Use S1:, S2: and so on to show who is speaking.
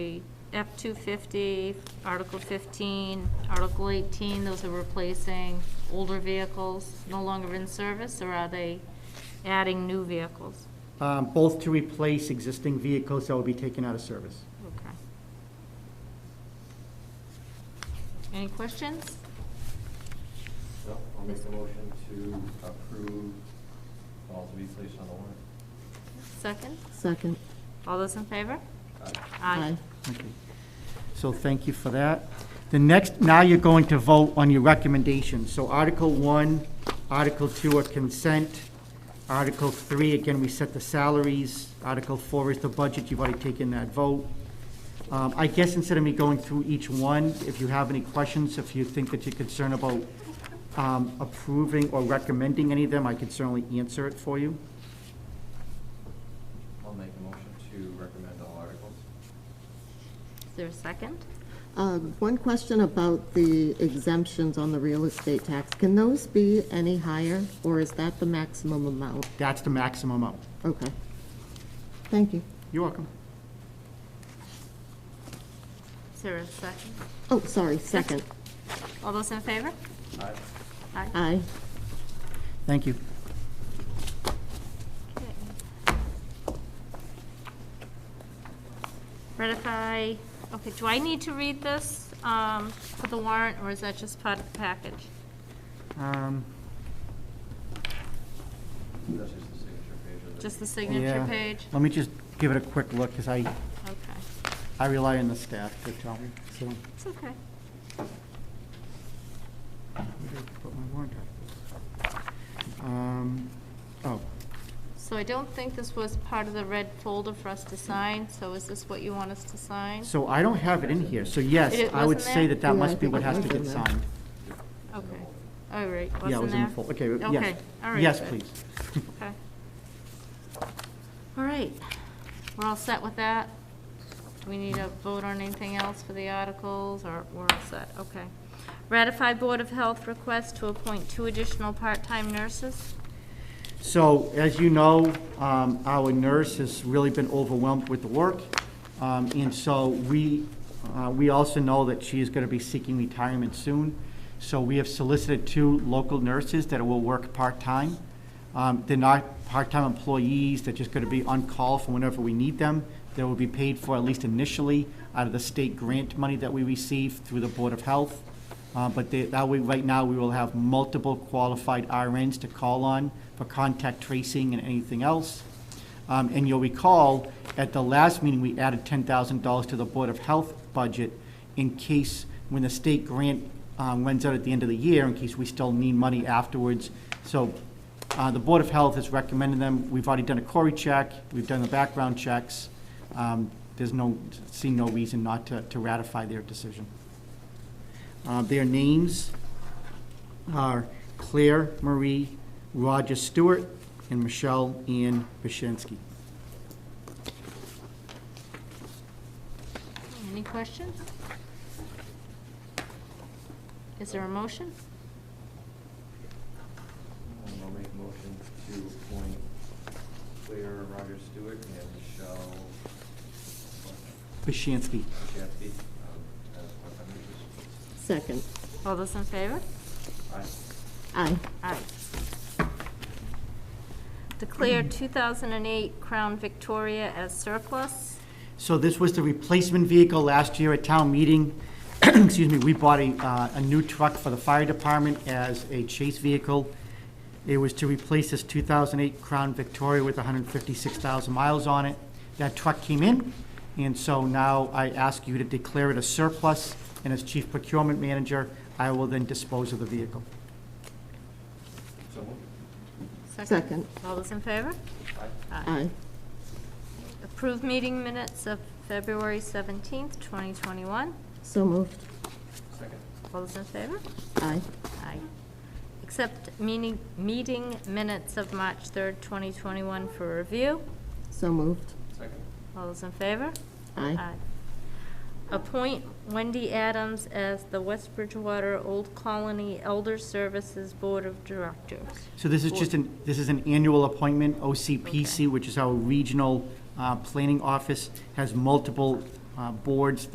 S1: F-250, Article 15, Article 18, those are replacing older vehicles no longer in service, or are they adding new vehicles?
S2: Um, Both to replace existing vehicles that will be taken out of service.
S1: Okay. Any questions?
S3: No, I'll make a motion to approve all to be placed on the warrant.
S1: Second?
S4: Second.
S1: All those in favor?
S3: Aye.
S2: Okay. So thank you for that. The next, now you're going to vote on your recommendations. So Article 1, Article 2 are consent. Article 3, again, we set the salaries. Article 4 is the budget, you've already taken that vote. Um, I guess instead of me going through each one, if you have any questions, if you think that you're concerned about um, approving or recommending any of them, I could certainly answer it for you.
S3: I'll make a motion to recommend all articles.
S1: Is there a second?
S4: Uh, One question about the exemptions on the real estate tax. Can those be any higher, or is that the maximum amount?
S2: That's the maximum amount.
S4: Okay. Thank you.
S2: You're welcome.
S1: Is there a second?
S4: Oh, sorry, second.
S1: All those in favor?
S3: Aye.
S1: Aye.
S4: Aye.
S2: Thank you.
S1: Okay. Ratify, okay, do I need to read this um, for the warrant, or is that just part of the package?
S2: Um,
S3: That's just the signature page of the.
S1: Just the signature
S2: Yeah.
S1: page?
S2: Let me just give it a quick look, because I,
S1: Okay,
S2: I rely on the staff to tell me, so. where
S1: it's okay.
S2: did I put my warrant articles? Um, Oh,
S1: So I don't think this was part of the red folder for us to sign, so is this what you want us to sign?
S2: so I don't have it in here, so
S1: It-
S2: yes,
S1: it
S2: I would
S1: wasn't
S2: say
S1: there?
S2: that that
S4: Yeah, I
S2: must be
S4: think
S2: what
S4: it
S2: has to
S4: was
S2: get
S4: in there.
S2: signed.
S1: Okay, all right,
S2: Yeah, it
S1: wasn't
S2: was in
S1: there?
S2: the folder, okay, yes.
S1: Okay, all right.
S2: Yes,
S1: good.
S2: please.
S1: Okay. All right, we're all set with that? Do we need a vote on anything else for the articles, or we're all set? Okay. Ratify Board of Health request to appoint two additional part-time nurses?
S2: So, as you know, um, our nurse has really been overwhelmed with the work, um, and so we, uh, we also know that she is going to be seeking retirement soon. So we have solicited two local nurses that will work part-time. Um, They're not part-time employees, they're just going to be on call for whenever we need them. They will be paid for, at least initially, out of the state grant money that we receive through the Board of Health. Uh, But they- that way, right now, we will have multiple qualified RNs to call on for contact tracing and anything else. Um, And you'll recall, at the last meeting, we added $10,000 to the Board of Health budget in case, when the state grant um, runs out at the end of the year, in case we still need money afterwards. So uh, the Board of Health has recommended them. We've already done a Cory check, we've done the background checks. Um, There's no, see no reason not to to ratify their decision. Uh, Their names are Claire Marie Roger Stewart and Michelle Ann Bashansky.
S1: Any questions? Is there a motion?
S3: And I'll make a motion to appoint Claire Roger Stewart and Michelle
S2: Bashansky.
S3: Jeffy um, as part-time nurses.
S4: Second.
S1: All those in favor?
S3: Aye.
S4: Aye.
S1: Aye. Declare 2008 Crown Victoria as surplus.
S2: So this was the replacement vehicle last year at town meeting. Excuse me, we bought a, uh, a new truck for the fire department as a chase vehicle. It was to replace this 2008 Crown Victoria with 156,000 miles on it. That truck came in, and so now I ask you to declare it a surplus, and as chief procurement manager, I will then dispose of the vehicle.
S3: So moved.
S4: Second.
S1: All those in favor?
S3: Aye.
S4: Aye.
S1: Approved meeting minutes of February 17th, 2021.
S4: So moved.
S3: Second.
S1: All those in favor?
S4: Aye.
S1: Aye. Accept meeting, meeting minutes of March 3rd, 2021 for review.
S4: So moved.
S3: Second.
S1: All those in favor?
S4: Aye.
S1: Appoint Wendy Adams as the West Bridgewater Old Colony Elder Services Board of Directors.
S2: So this is just an, this is an annual appointment, OCPC, which is our regional uh, planning office, has multiple uh, uh, boards